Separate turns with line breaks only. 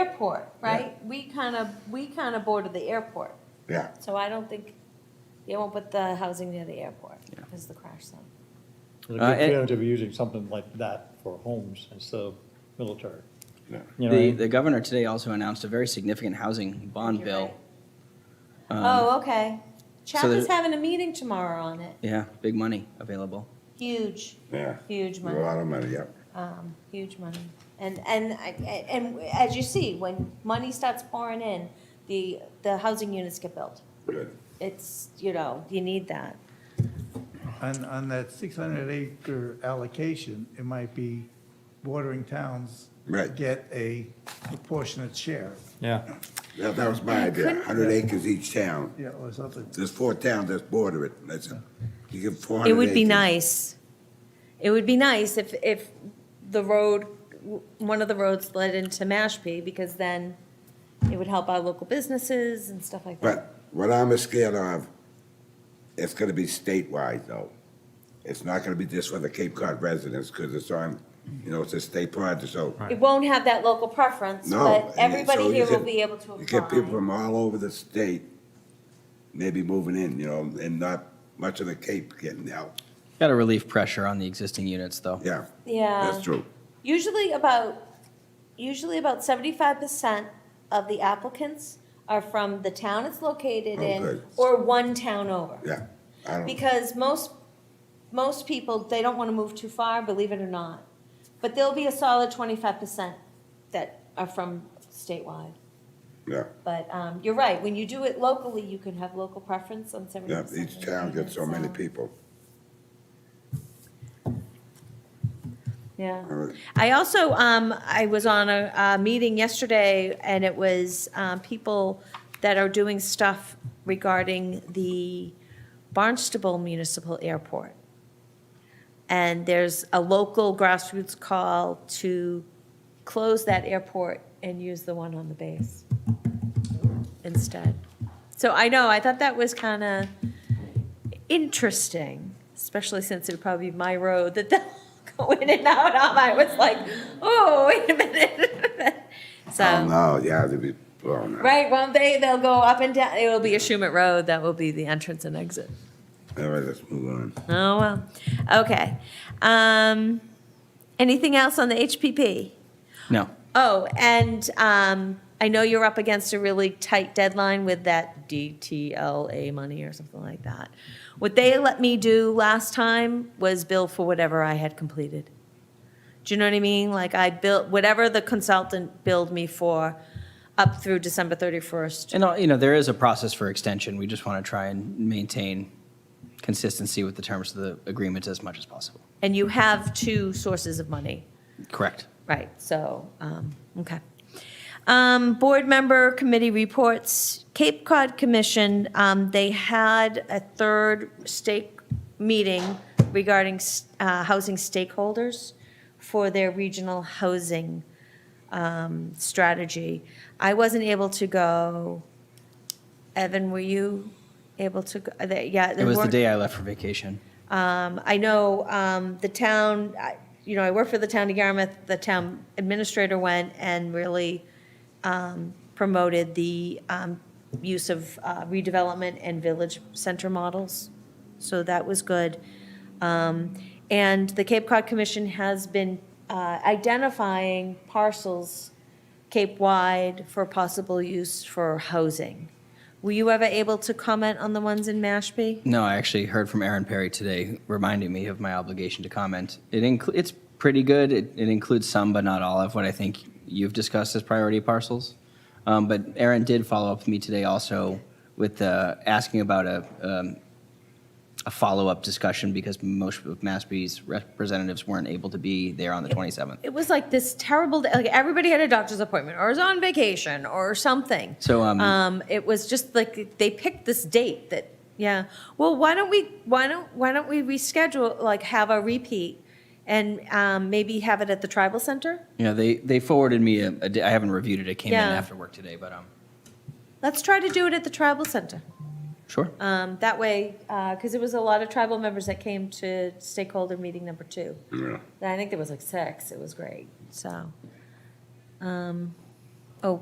airport, right? We kind of, we kind of border the airport,
yeah.
so I don't think, they won't put the housing near the airport, because the crash zone.
It'd
Uh,
be
and-
fair to be using something like that for homes instead of military.
Yeah.
You know what I
The,
mean?
the governor today also announced a very significant housing bond
You're
bill.
right.
Um,
Oh, okay.
so
Chapman's
the-
having a meeting tomorrow on it.
Yeah, big money available.
Huge,
Yeah.
huge
A
money,
lot of money, yeah.
um, huge money. And, and, I- and as you see, when money starts pouring in, the, the housing units get built.
Good.
It's, you know, you need that.
On, on that 600 acre allocation, it might be bordering towns
Right.
get a proportionate share,
Yeah,
That, that was my idea, hundred acres each town.
yeah, or something.
There's four towns that border it. That's it. You give four hundred
It
acres.
would be nice. It would be nice if, if the road, w- one of the roads led into Mashpee, because then it would help our local businesses and stuff like that.
But what I'm scared of, it's gonna be statewide though. It's not gonna be just for the Cape Cod residents, because it's on, you know, it's a state project, so.
It won't have that local preference,
No.
but
and so
everybody
you
here will
get-
be able to
You get people
apply.
from all over the state, maybe moving in, you know, and not much of the Cape getting help.
Got to relieve pressure on the existing units, though.
Yeah,
Yeah.
that's true.
Usually about, usually about seventy-five percent of the applicants are from the town it's located
Oh,
in
good.
or one town over.
Yeah, I don't.
Because most, most people, they don't want to move too far, believe it or not. But there'll be a solid twenty-five percent that are from statewide.
Yeah,
But um, you're right, when you do it locally, you can have local preference on seventy
yeah,
percent.
each town gets so many people.
Yeah.
All right.
I also, um, I was on a, a meeting yesterday, and it was, um, people that are doing stuff regarding the Barnstable Municipal Airport. And there's a local grassroots call to close that airport and use the one on the base instead. So I know, I thought that was kind of interesting, especially since it would probably be my road that they'll go in and out on. I was like, oh, wait a minute.
Oh,
So,
no, yeah, they'd be blown out.
right, won't they, they'll go up and down, it will be a Schumet Road, that will be the entrance and exit.
All right, let's move on.
Oh, well, okay. Um, anything else on the HPP?
No.
Oh, and um, I know you're up against a really tight deadline with that DTLA money or something like that. What they let me do last time was bill for whatever I had completed. Do you know what I mean? Like I built, whatever the consultant billed me for up through December 31st.
And, uh, you know, there is a process for extension. We just want to try and maintain consistency with the terms of the agreements as much as possible.
And you have two sources of money.
Correct.
Right, so, um, okay. Um, board member committee reports, Cape Cod Commission, um, they had a third stake meeting regarding, s- uh, housing stakeholders for their regional housing, um, strategy. I wasn't able to go. Evan, were you able to go? Uh, they- Yeah.
It was the day I left for vacation.
Um, I know um, the town, I- you know, I work for the town of Yarmouth, the town administrator went and really um, promoted the um, use of uh, redevelopment and village center models, so that was good. Um, And the Cape Cod Commission has been uh, identifying parcels Cape-wide for possible use for housing. Were you ever able to comment on the ones in Mashpee?
No, I actually heard from Aaron Perry today, reminding me of my obligation to comment. It incl- it's pretty good. It, it includes some, but not all of what I think you've discussed as priority parcels. Um, but Aaron did follow up with me today also with uh, asking about a um, a follow up discussion because most of Massby's representatives weren't able to be there on the 27th.
it was like this terrible day. Like everybody had a doctor's appointment or was on vacation or something.
So, um,
um, it was just like they picked this date that yeah. Well, why don't we why don't why don't we reschedule like have a repeat and um, maybe have it at the tribal center?
You know, they they forwarded me a, a di- I haven't reviewed it. It came
Yeah.
in after work today, but um,
Let's try to do it at the tribal center.
sure.
Um, that way, because it was a lot of tribal members that came to stakeholder meeting number two.
Yeah.
I think there was like six. It was great. So, um, Oh,